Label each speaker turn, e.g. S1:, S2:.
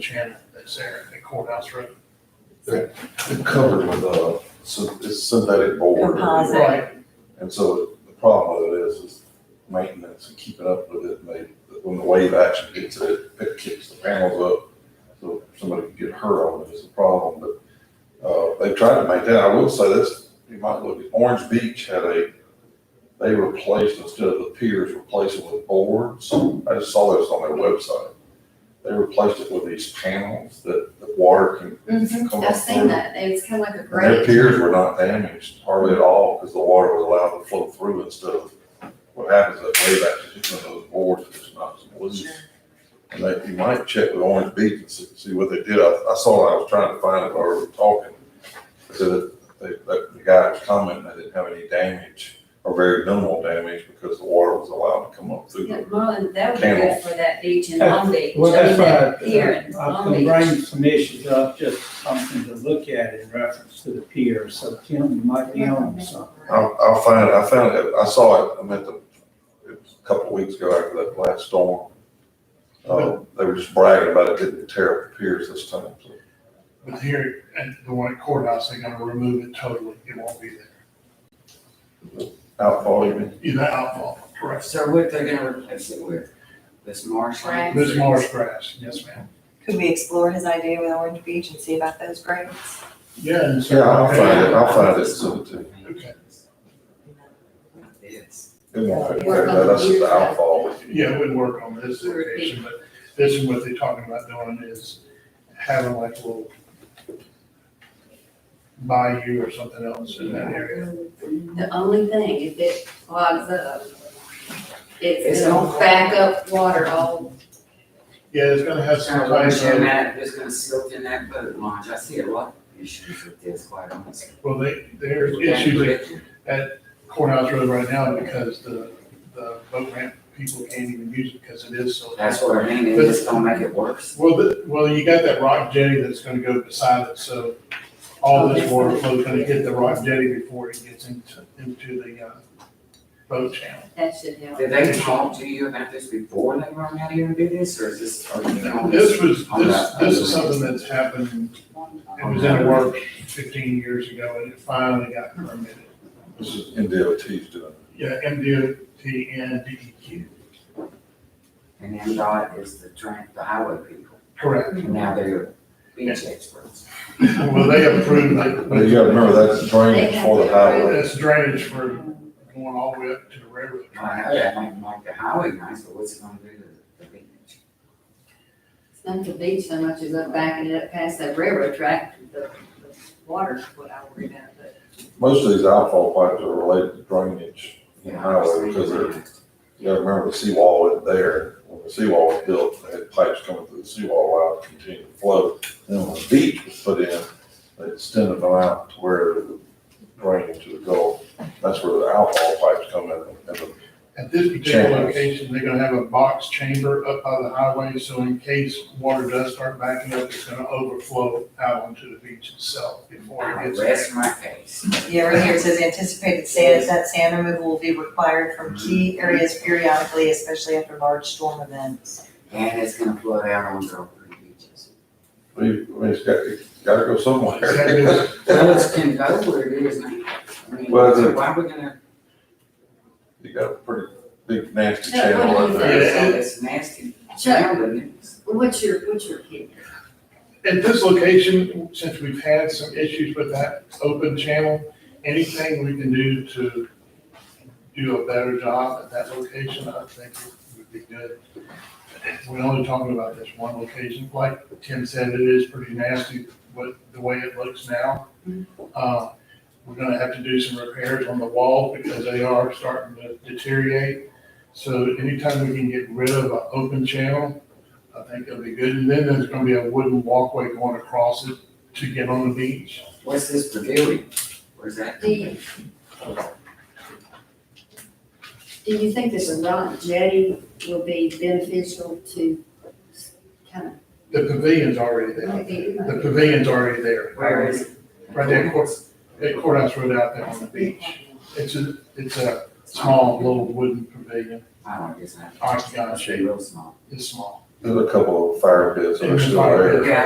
S1: Shannon that's there at courthouse road.
S2: It's covered with a, syn- it's synthetic board.
S3: Composite.
S1: Right,
S2: And so the problem with it is, is maintenance and keeping up with it, and they, when the wave action gets it, it kicks the panels up. So somebody could get hurt on it is a problem, but, uh, they tried to make that, I will say this, you might look, at Orange Beach had a, they replaced, instead of the piers, replaced it with boards. I just saw this on their website. They replaced it with these panels that the water can
S3: Mhm,
S2: Come
S3: I've
S2: up
S3: seen
S2: through.
S3: that, it's kind of like a
S2: and Their
S3: grate.
S2: piers were not damaged hardly at all because the water was allowed to flow through and stuff. What happens is that wave action hits one of those boards and just knocks them loose. And that, you might check with Orange Beach and see, see what they did. I, I saw, it. I was trying to find it while we were talking. They said that, they- that the guy was commenting they didn't have any damage or very minimal damage because the water was allowed to come up through
S4: Yeah,
S2: them.
S4: Merlin, that would be good
S2: Camels.
S4: for that beach in Long Beach.
S5: Well,
S4: I mean,
S5: that's
S4: that
S5: why
S4: Pier in
S5: I- uh, I
S4: Long
S5: can
S4: Beach.
S5: bring some issues up, just something to look at in reference to the pier, so Tim, you might be on to something.
S2: I'll, I'll find it. I found it. I saw it. I meant the, it was a couple of weeks ago after that last storm. Uh, they were just bragging about it didn't tear up the piers this time. so.
S1: but here at the one at courthouse, they're gonna remove it totally. It won't be there.
S2: Outfall even.
S1: You know, outfall, correct.
S6: So what they're gonna replace it with, this marshland?
S1: This marsh grass, yes, ma'am.
S3: Could we explore his idea with Orange Beach and see about those grates?
S1: Yeah. and so-
S2: Yeah, I'll find it. I'll find it soon too.
S1: Okay.
S6: It's,
S2: It won't affect that. That's just the outfall.
S1: Yeah, we'd work on this situation, but this is what they're talking about doing is having like a little bayou or something else in that area.
S4: The only thing, if it clogs up, it's
S6: It's
S4: gonna
S6: awful.
S4: back up water all,
S1: Yeah, it's gonna have
S6: it's
S1: some
S6: gonna
S1: type
S6: wash in
S1: of,
S6: that, it's gonna silt in that boat launch, I see a lot of issues with this, quite honestly.
S1: well, they, there's issues at courthouse road right now because the, the boat ramp people can't even use it because it is so.
S6: That's what I mean, they just don't make it worse.
S1: Well, the, well, you got that rock jetty that's gonna go beside it, so all this water flow is gonna hit the rock jetty before it gets into, into the, uh, boat channel.
S4: that should help.
S6: Did they talk to you about this before they run out here and do this, or is this, are you on this?
S1: This was, this, this is something that's happened, it was in the works fifteen years ago, and it finally got permitted.
S2: This is NDOT's doing.
S1: Yeah, MDOT and DEQ,
S6: And then God is the train, the highway people,
S1: correct.
S6: and now they're beach experts.
S1: Well, they approved it.
S2: But you gotta remember that's drainage for the highway.
S1: That's drainage for going all the way up to the railroad.
S6: I know that might make the highway nice, but what's it gonna do to the beach?
S4: It's not the beach so much as up backing it up past that railroad track, the, the water's what I worry about, but
S2: Most of these outfall pipes are related to drainage in the highway because they're
S6: Well,
S2: You gotta remember the seawall wasn't there. When the seawall was built, they had pipes coming through the seawall allowed to continue to flow. Then when the beach was put in, they extended them out to where it would drain into the Gulf. That's where the alcohol pipes come in. And the-
S1: At this particular
S2: Chambers.
S1: location, they're gonna have a box chamber up by the highway, so in case water does start backing up, it's gonna overflow out onto the beach itself before
S6: I
S1: it
S6: rest
S1: gets.
S6: my case.
S3: Yeah, right here it says anticipated sand, that sand removal will be required from key areas periodically, especially after large storm events.
S6: And it's gonna flood out on Gulf Creek beaches.
S2: I mean, it's got, it's gotta go somewhere.
S1: Exactly.
S6: Well, it's can go where it is now. I mean,
S2: Well, the-
S6: so why we gonna,
S2: You got a pretty big nasty
S4: Yeah,
S2: channel
S4: what do
S2: in
S4: you
S2: there.
S1: Yeah.
S6: so it's nasty
S4: Chuck,
S6: sound, isn't it?
S4: what's your, what's your opinion?
S1: At this location, since we've had some issues with that open channel, anything we can do to do a better job at that location, I think would be good. We're only talking about this one location, like Tim said, it is pretty nasty, but the way it looks now. Uh, We're gonna have to do some repairs on the wall because they are starting to deteriorate. So anytime we can get rid of an open channel, I think it'll be good. And then there's gonna be a wooden walkway going across it to get on the beach.
S6: What's this pavilion? Where's that?
S4: Do you, do you think this rock jetty will be beneficial to kind of?
S1: The pavilion's already there. The pavilion's already there.
S6: Where is? it?
S1: Right there, of course. At Courthouse Road out there on the beach. It's a, it's a small little wooden pavilion,
S6: Oh, I don't guess that.
S1: octagon shape.
S6: Real small.
S1: It's small.
S2: There's a couple of fire pits that are still
S1: Fire
S2: there.
S1: pits.
S6: Yeah,